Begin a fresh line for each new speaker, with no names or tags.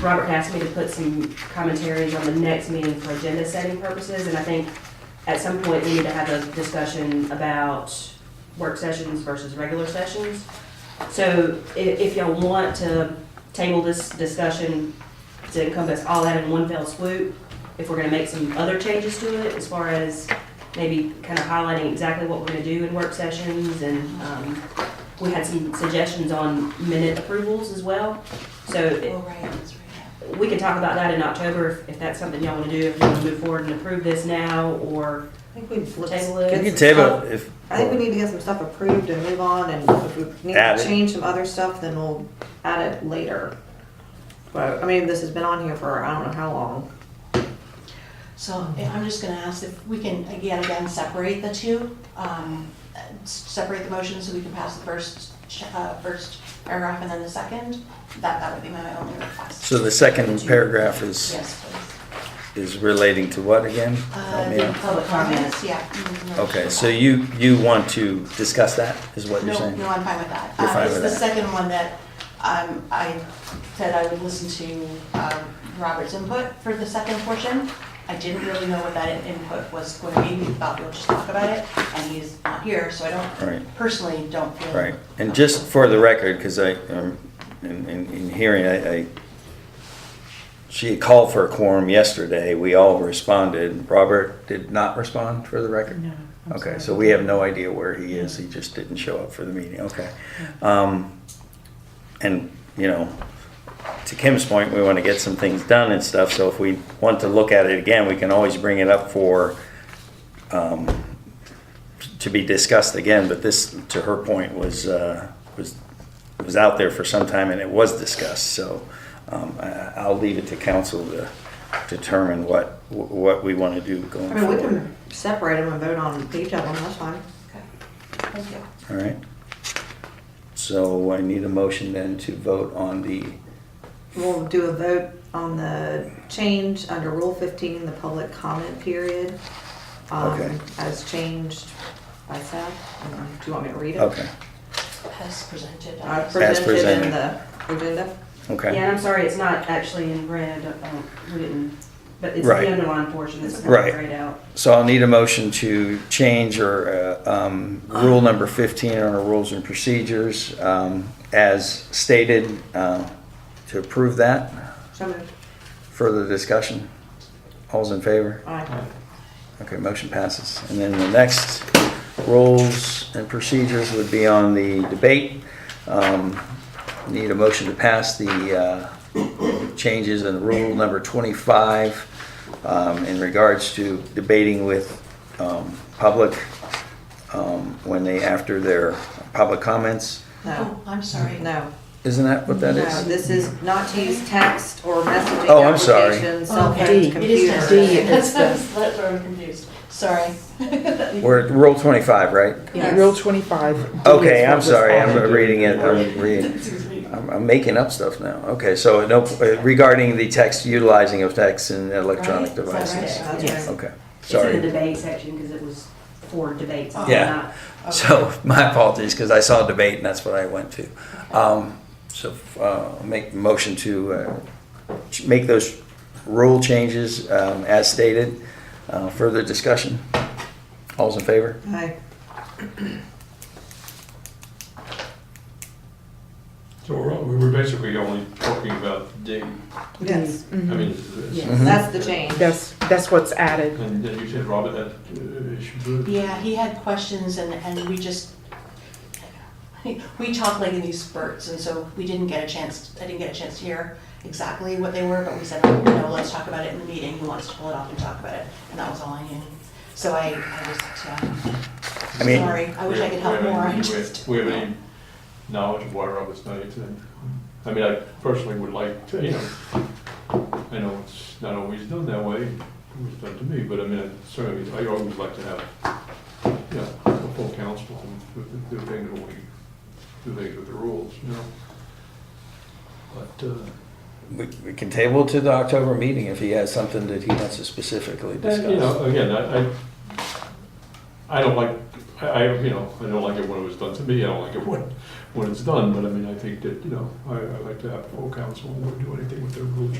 Robert asked me to put some commentaries on the next meeting for agenda setting purposes, and I think at some point, we need to have a discussion about work sessions versus regular sessions. So i- if y'all want to table this discussion to encompass all that in one fell swoop, if we're gonna make some other changes to it, as far as maybe kind of highlighting exactly what we're gonna do in work sessions, and, um, we had some suggestions on minute approvals as well. So i-
Well, Oh, right, that's right.
we can talk about that in October, if, if that's something y'all wanna do, if you wanna move forward and approve this now, or
I think we've looked.
Table it.
get
We can
some
table
stuff-
it if.
I think we need to get some stuff approved and move on, and if we need
Add
to
it.
change some other stuff, then we'll add it later. But, I mean, this has been on here for I don't know how long.
So if I'm just gonna ask if we can, again, again, separate the two, um, uh, s- separate the motion so we can pass the first, ch- uh, first paragraph and then the second. That, that would be my only request.
So the second paragraph is,
Yes, please.
is relating to what again?
Uh,
Help me
the
out.
public comments, yeah. mm, no,
Okay,
sure.
so you, you want to discuss that, is what you're
No,
saying?
no, I'm fine with that.
You're
Um,
fine with
It's
that.
the second one that um, I said I would listen to um, Robert's input for the second portion. I didn't really know what that input was going to be, we thought we'll just talk about it, and he's not here, so I don't,
Right.
personally, don't feel.
Right, and just for the record, because I, um, in, in, in hearing, I, I, she had called for a quorum yesterday, we all responded, Robert did not respond for the record? No. Okay, so we have no idea where he is, he just didn't show up for the meeting, okay. Um, and, you know, to Kim's point, we want to get some things done and stuff, so if we want to look at it again, we can always bring it up for, um, to be discussed again, but this, to her point, was, uh, was, was out there for some time and it was discussed, so, um, I, I- I'll leave it to council to determine what, what we want to do going
I mean, we
forward.
can separate them and vote on each of them, that's fine.
Okay. Thank you.
All right? So I need a motion then to vote on the,
We'll do a vote on the change under Rule 15, the public comment period. um,
Okay.
As changed by Seth. And then- Do you want me to read it?
okay,
As presented.
I
I-
presented in
presented.
the agenda.
Yeah,
okay.
and I'm sorry, it's not actually in red, um, we didn't, but it's
Right.
the underlined portion that's kind
Right.
of grayed out.
So I'll need a motion to change or, uh, um, rule number fifteen on our rules and procedures, um, as stated, uh, to approve that.
So moved.
Further discussion? All's in favor?
Aye.
Okay, motion passes. And then the next rules and procedures would be on the debate. Um, Need a motion to pass the uh, changes in rule number 25 um, in regards to debating with um, public um, when they, after their public comments.
No,
Oh, I'm sorry.
no.
Isn't that what that
No,
is?
this is not to use text or messaging
Oh, I'm sorry.
applications, cell
Okay.
phones,
It is
computers.
next to it. That's that's where I'm confused, sorry.
We're at rule 25, right?
Yes.
Rule 25.
Okay,
Yes,
I'm
what was
sorry,
added.
I'm reading it, I'm reading.
Excuse me.
I'm, I'm making up stuff now. Okay, so no, regarding the text, utilizing of text and
Right,
electronic
is that right?
devices.
That's
Yes.
right.
Okay,
It's in the
sorry.
debate section, because it was for debates. it's
Yeah.
not-
So my apologies, because I saw debate and that's what I went to. Um, so, uh, make the motion to, uh, ch- make those rule changes, um, as stated. Uh, further discussion? All's in favor?
Aye.
So we're, all- we were basically only talking about the date,
Yes,
Mm-hmm.
I
Mhm.
mean, it's- it's-
Yeah.
that's the change.
That's, that's what's added.
and then you said, Robert, that uh, it should do it.
Yeah, he had questions and, and we just, we talk like in these spurts, and so we didn't get a chance, I didn't get a chance to hear exactly what they were, but we said, you know, let's talk about it in the meeting, who wants to pull it off and talk about it, and that was all I knew. So I, I just, uh,
I mean-
sorry, I wish I could help
We haven't-
more, I
we-
just.
We have any knowledge of why Robert's not here today? I mean, I personally would like to, you know, I know it's not always done that way, it was done to me, but I mean, I certainly, I always like to have, you know, a full council and do- do things when we, do things with the rules, you know? But, uh,
We, we can table to the October meeting if he has something that he wants to specifically
Uh, You know,
discuss.
again, I, I, I don't like, I, I, you know, I don't like it when it was done to me, I don't like it when, when it's done, but I mean, I think that, you know, I, I like to have full council, and we'll do anything with their rules